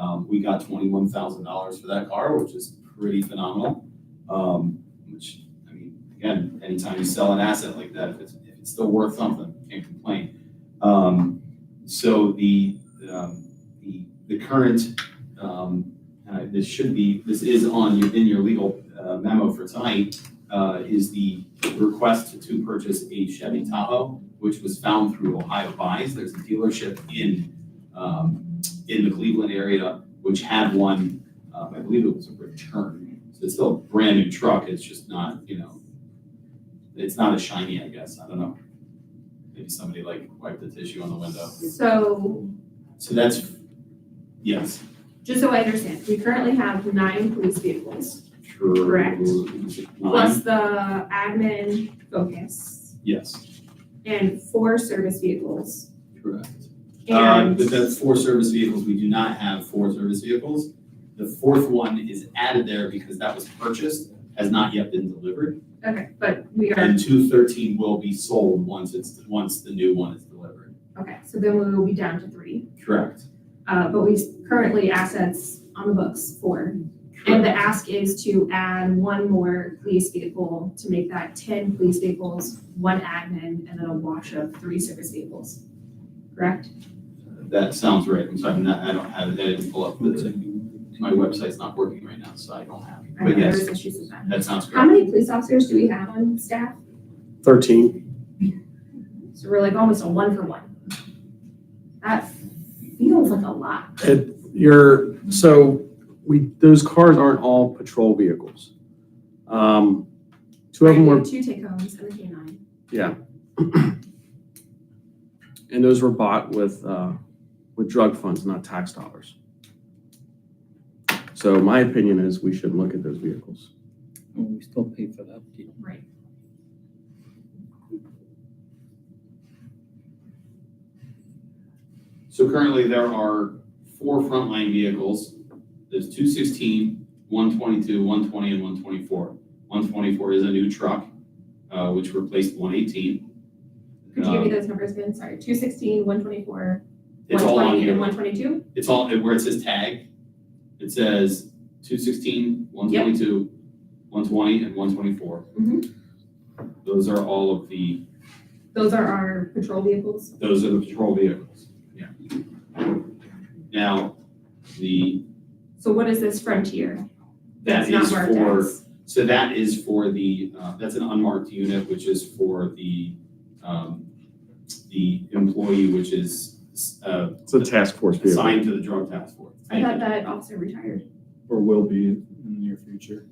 Um, we got twenty-one thousand dollars for that car, which is pretty phenomenal. Um, which, I mean, again, anytime you sell an asset like that, if it's, if it's still worth something, can't complain. Um, so the, um, the, the current, um, uh, this should be, this is on, your- in your legal uh, memo for tonight, uh, is the request to purchase a Chevy Tahoe, which was found through Ohio Buys. There's a dealership in, um, in the Cleveland area, which had one, um, I believe it was a return. So it's still a brand new truck, it's just not, you know, it's not as shiny, I guess, I don't know. Maybe somebody like wiped the tissue on the window. So, So that's, yes, just so I understand, we currently have nine police vehicles, true. Correct. Nine, plus the admin focus, yes, and four service vehicles. correct. Um, And, but that's four service vehicles, we do not have four service vehicles. The fourth one is added there because that was purchased, has not yet been delivered. okay, but we are, And two thirteen will be sold once it's, once the new one is delivered. okay, so then we will be down to three. Correct. Uh, but we currently assets on the books four. And the Correct. ask is to add one more police vehicle to make that ten police vehicles, one admin, and then a wash of three service vehicles. Correct? That sounds right, I'm sorry, I'm not- I don't have, it. I didn't pull up, the- my website's not working right now, so I don't have it. I know But yes, there's issues with that. that sounds How correct. many police officers do we have on staff? 13. So we're like almost a one for one. That feels like a lot. You're, so we, those cars aren't all patrol vehicles. Um, Two of them Right, we were, have Two take homes and a K nine. and those were bought with, uh, with drug funds, not tax dollars. So my opinion is we should look at those vehicles. Well, we still pay for the upkeep. Right. So currently, there are four frontline vehicles. There's two sixteen, one twenty-two, one twenty, and one twenty-four. One twenty-four is a new truck, uh, which replaced one eighteen. Uh, Could you give me those numbers again? Sorry, two sixteen, one twenty-four, one It's all on twenty, and here. one twenty-two? It's all, where it says tag, it says two sixteen, one twenty-two, one twenty, and one twenty-four. Mm-hmm. Those are all of the, Those are our patrol vehicles. those are the patrol vehicles. Yeah. Now, the, So what is this frontier? that That's is not marked for as. So that is for the, uh, that's an unmarked unit, which is for the, um, the employee, which is, uh, It's a task force vehicle. assigned to the drug task force. I Thank thought you. that officer retired. or will be in the near future.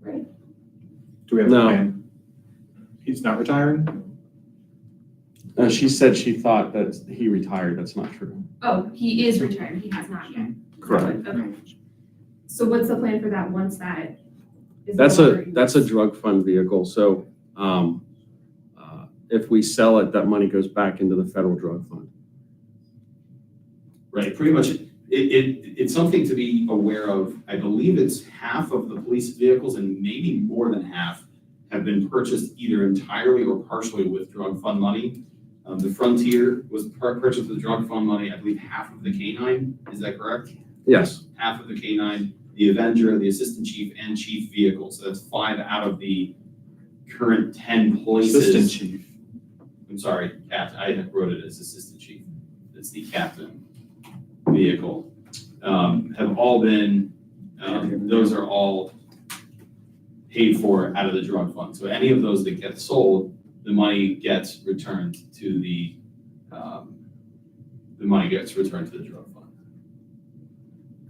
Right. Do we have a No. plan? He's not retiring? Uh, she said she thought that he retired. That's not true. Oh, he is retired. He has not yet. Okay. So what's the plan for that once that is? no That's a, longer in that's a use? drug fund vehicle, so, um, uh, if we sell it, that money goes back into the federal drug fund. Right, pretty much, it, it, it's something to be aware of. I believe it's half of the police vehicles and maybe more than half have been purchased either entirely or partially with drug fund money. Um, the Frontier was pur- purchased with drug fund money. I believe half of the canine, is that correct? Yes, half of the K-9, the Avenger, the Assistant Chief, and Chief Vehicle. So that's five out of the current ten Assistant places. chief. I'm sorry, Captain, I wrote it as Assistant Chief. It's the Captain Vehicle. Um, have all been, um, those are all paid for out of the drug fund. So any of those that get sold, the money gets returned to the, um, the money gets returned to the drug fund.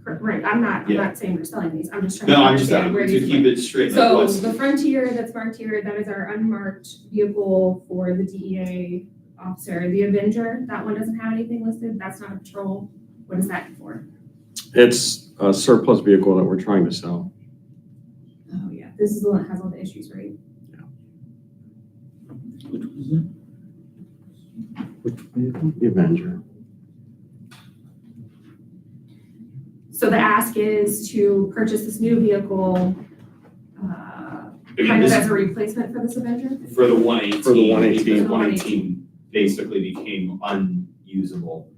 Cor- Right, I'm not, I'm Yeah. not saying we're selling these. I'm just trying to No, I'm just, understand where to these. are keep it straight, like So what's- the Frontier that's marked here, that is our unmarked vehicle for the DEA officer. The Avenger, that one doesn't have anything listed. That's not a patrol. What is that for? it's a surplus vehicle that we're trying to sell. Oh, yeah. This is the one that has all the issues, right? Which was it? Which vehicle? The Avenger. So the ask is to purchase this new vehicle, uh, Again, kind of this as a replacement for this Avenger? is for the one eighteen. For the 118. One eighteen basically became unusable.